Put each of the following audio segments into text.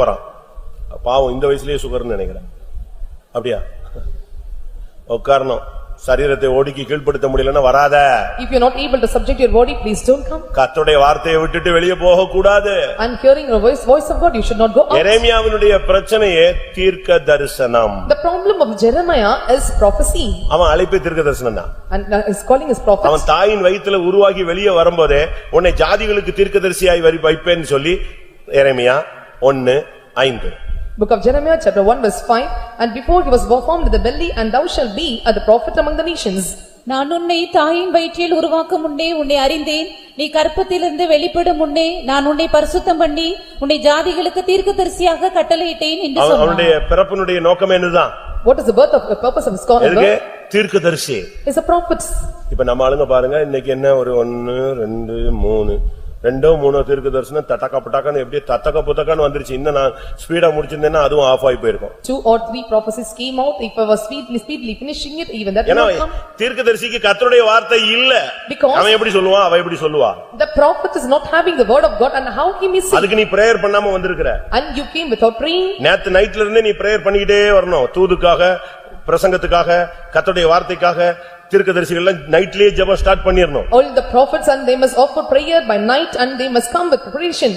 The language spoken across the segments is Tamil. போறான் பாவம் இந்த வயசுலயே சுகர்னு நினைக்கிறேன் அப்படியா உட்காரணும் சரீரத்தை ஒடுக்கி கீழ்ப்படுத்த முடியலன்னா வராத If you are not able to subject your body, please don't come. கர்த்தருடைய வார்த்தையை விட்டுட்டு வெளியே போக கூடாது And hearing the voice, voice of God, you should not go out. எரேமியாவினுடைய பிரச்சனையே தீர்க்க தரிசனம் The problem of Jeremiah is prophecy அவன் அழைப்பே தீர்க்க தரிசனம் தான் and uh, his calling is prophet. அவன் தாயின் வயித்துல உருவாகி வெளியே வரும்போதே உன்னை ஜாதிகளுக்கு தீர்க்கதரிசியாய் வரி வைப்பேன்னு சொல்லி எரேமியா ஒன்னு ஐந்து Book of Jeremiah, chapter 1, verse 5, "And before he was formed in the belly, and thou shalt be a the prophet among the nations." நான் உன்னை தாயின் வயிற்றில் உருவாக்கும் முன்னே உன்னை அறிந்தேன் நீ கற்பத்திலிருந்து வெளிப்படும் முன்னே நான் உன்னை பரிசுத்தம் பண்ணி உன்னை ஜாதிகளுக்கு தீர்க்கதரிசியாக கட்டளையிட்டேன் என்று அவன் சொன்னான் அவனுடைய பிறப்பினுடைய நோக்கம் என்னதான் What is the birth of, the purpose of his calling? எதுக்கு தீர்க்கதரிசி Is a prophet. இப்ப நம்ம ஆளுங்க பாருங்க இன்னைக்கு என்ன ஒரு ஒன்னு ரெண்டு மூணு ரெண்டோ மூணோ தீர்க்க தரிசனம் தட்டக்க புட்டக்கன்னு எப்படியே தத்தக்க புத்தக்கன்னு வந்துருச்சு இன்னும் நான் ஸ்பீடா முடிச்சிருந்தேன்னா அதுவும் ஆஃப் ஆகி போயிருக்கும் Two or three prophecies came out, if I was speedily speedily finishing it, even that will ஏன்னா not come. தீர்க்க தரிசிக்கு கர்த்தருடைய வார்த்தை இல்ல Because- அவன் எப்படி சொல்லுவான் அவ எப்படி சொல்லுவா The prophet is not having the word of God, and how he missing? அதுக்கு நீ பிரேயர் பண்ணாம வந்திருக்கிற And you came without praying, நேத்து நைட்ல இருந்தே நீ பிரேயர் பண்ணிக்கிட்டே வரணும் தூதுக்காக பிரசங்கத்துக்காக கர்த்தருடைய வார்த்தைக்காக தீர்க்க தரிசிகள் நைட்லயே ஜெபம் ஸ்டார்ட் பண்ணிரணும் all the prophets, and they must offer prayer by night, and they must come with preparation.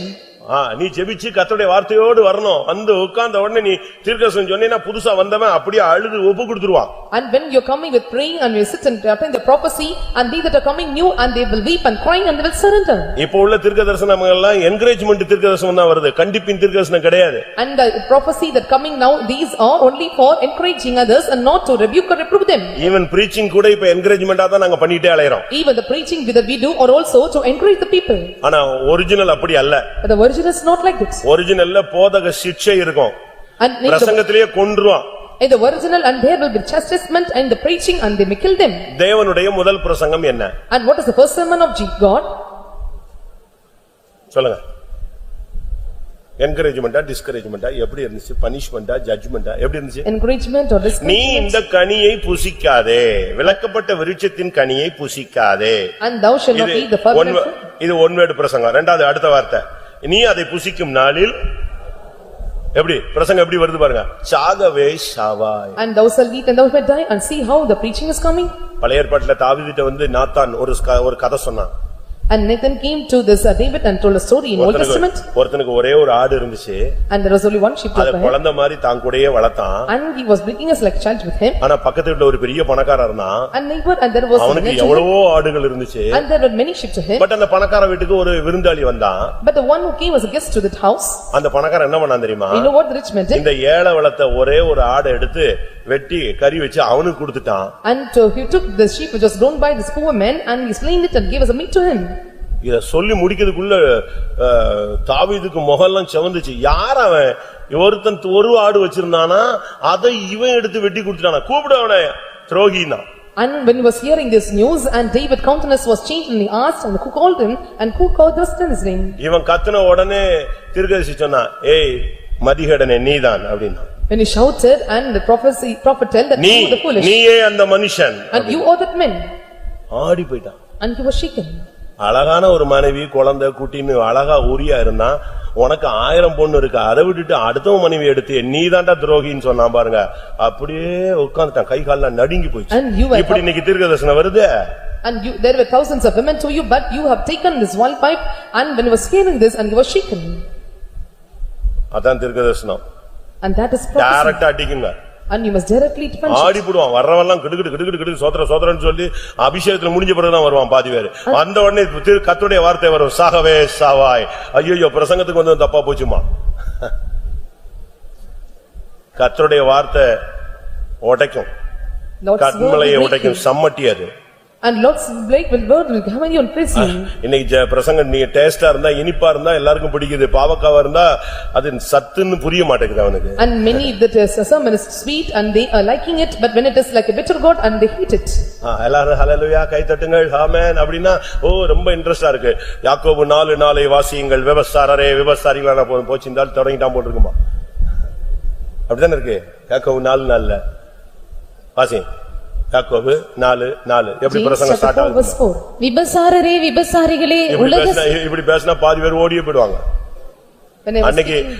ஆ, நீ ஜெபிச்சு கர்த்தருடைய வார்த்தையோடு வரணும் வந்து உட்கார்ந்த உடனே நீ தீர்க்கதரிசனம் சொன்னீன்னா புதுசா வந்தவன் அப்படியே அழுது ஒப்பு கொடுத்துருவான் And when you're coming with praying and you sit and attend the prophecy and they that are coming new and they will weep and crying and they will surrender. இப்போ உள்ள தீர்க்கதரிசனம் எல்லாம் என்கரேஜ்மெண்ட் தீர்க்கதரிசனம் தான் வருது கண்டிப்பின் தீர்க்கதரிசனம் கிடையாது And the prophecy that coming now, these are only for encouraging others and not to rebuke or reprove them. Even preaching கூட இப்ப என்கரேஜ்மெண்டா தான் நாங்க பண்ணிட்டே அலையறோம் Even the preaching that we do are also to encourage the people. ஆனா ஒரிஜினல் அப்படி அல்ல But the virgin is not like that. ஒரிஜினல்ல போதக சிக்ஷை இருக்கும் And in the- பிரசங்கத்திலேயே கொன்றுவான் in the original and there will be chastisement and the preaching and they may kill them. தேவனுடைய முதல் பிரசங்கம் என்ன And what is the first sermon of G- God? சொல்லுங்க என்கரேஜ்மெண்டா டிஸ்கரேஜ்மெண்டா எப்படி இருந்துச்சு பனிஷ்மெண்டா ஜட்ஜ்மெண்டா எப்படி இருந்துச்சு Encouragement or நீ discouragement? இந்த கனியை புசிக்காதே விளக்கப்பட்ட விருட்சத்தின் கனியை புசிக்காதே And thou shalt not இது eat the forbidden one- fruit. இது ஒன்வேடு பிரசங்கம் ரெண்டாவது அடுத்த வார்த்தை நீ அதை புசிக்கும் நாளில் எப்படி பிரசங்கம் எப்படி வருது பாருங்க சாகவே சாவாய் And thou shalt eat and thou shalt die and see how the preaching is coming. பழைய ஏற்பாட்டுல தாவீதுட்ட வந்து நாத்தான் ஒரு ஸ்க- ஒரு கதை சொன்னான் And Nathan came to this uh, David and told a story in Old Testament. ஒருத்தனுக்கு- ஒருத்தனுக்கு ஒரே ஒரு ஆடு இருந்துச்சு And there was only one sheep அத left for him. குழந்தை மாதிரி தான் கூடயே வளர்த்தான் And he was bringing us like a child with him. ஆனா பக்கத்து வீட்டுல ஒரு பெரிய பணக்காரர் இருந்தான் And neighbor and there was. a அவனுக்கு relative, எவ்வளவோ ஆடுகள் இருந்துச்சு And there were many sheep to him. But அந்த பணக்கார வீட்டுக்கு ஒரு விருந்தாளி வந்தான் But the one who came was a guest to that house. அந்த பணக்காரன் என்ன பண்ணான் தெரியுமா You know what the rich man did? இந்த ஏழை வளர்த்த ஒரே ஒரு ஆடை எடுத்து வெட்டி கறி வச்சு அவனுக்கு கொடுத்துட்டான் And uh, he took the sheep which was grown by this poor man and he slain it and gave us a meat to him. இத சொல்லி முடிக்கிறதுக்குள்ள அஹ், தாவீதுக்கு முகம்லாம் செவந்துச்சு யார் அவன் ஒருத்தன் ஒரு ஆடு வச்சிருந்தானா அதை இவன் எடுத்து வெட்டி கொடுத்துட்டானா கூப்பிடு அவனை துரோகினா And when he was hearing this news and David countenance was changed and he asked and who called him and who called this in his name. இவன் கத்துன உடனே திருக்கதரிசி சொன்னான் ஏய் மதிகடனே நீதான் அப்படின்னா When he shouted and the prophecy prophet told that நீ you the foolish நீயே அந்த மனுஷன் and you are that man. ஆடி போயிட்டான் And he was shaken. அழகான ஒரு மனைவி குழந்தை குட்டின்னு அழகா ஊரியா இருந்தா உனக்கு ஆயிரம் பொண்ணு இருக்கு அதை விட்டுட்டு அடுத்தவன் மனைவி எடுத்து நீதான்டா துரோகின்னு சொன்னான் பாருங்க அப்படியே உட்கார்ந்துட்டான் கை கால்லாம் நடுங்கி போயிடுச்சு And you were- இப்படி இன்னைக்கு தீர்க்கதரிசனம் வருது And you, there were thousands of women to you, but you have taken this one pipe, and when he was hearing this, and he was shaken. அதான் தீர்க்கதரிசனம் And that is prophecy, டைரக்டா அடிக்குங்க and you must directly punch. ஆடி போடுவான் வர்றவெல்லாம் கிடுகிடு கிடுகிடு கிடு சோத்திர சோத்திரன்னு சொல்லி அபிஷேகத்துல முடிஞ்ச பிறகுதான் வருவான் பாதி பேரு வந்த உடனே திரு கத்துடைய வார்த்தை வரும் சாகவே சாவாய் ஐயோ பிரசங்கத்துக்கு வந்து தப்பா போச்சுமா கர்த்தருடைய வார்த்தை உடைக்கும் Lord's word கண்மலையை will make you, உடைக்கும் சம்மட்டி அது and Lord's Blake will word will have you on prison. இன்னைக்கு ஜ- பிரசங்கம் நீ டேஸ்டா இருந்தா இனிப்பா இருந்தா எல்லாருக்கும் பிடிக்குது பாவக்காவா இருந்தா அது சத்துன்னு புரிய மாட்டேங்குது அவனுக்கு And many that is, a sermon is sweet, and they are liking it, but when it is like a bitter gourd, and they hate it. ஆ, எல்லாரும் ஹலலுயா கைதட்டுங்கள் ஆமென் அப்படின்னா ஓ ரொம்ப இன்ட்ரெஸ்டா இருக்கு யாக்கோபு நாலு நாளை வாசியுங்கள் விபச்சாரரே விபச்சாரிகளான போ- போச்சு இந்த ஆள் தொடங்கிட்டான் போட்டுருக்குமா அப்படிதானே இருக்கு யாக்கோபு நாலு நாள்ல வாசி யாக்கோபு நாலு நாலு எப்படி James பிரசங்கம் chapter ஸ்டார்ட் four verse ஆகுது four. விபசாரரே விபசாரிகளே இப்படி உலக பேசினா இப்படி பேசினா பாதி பேர் ஓடியே போயிடுவாங்க When I was அன்னைக்கு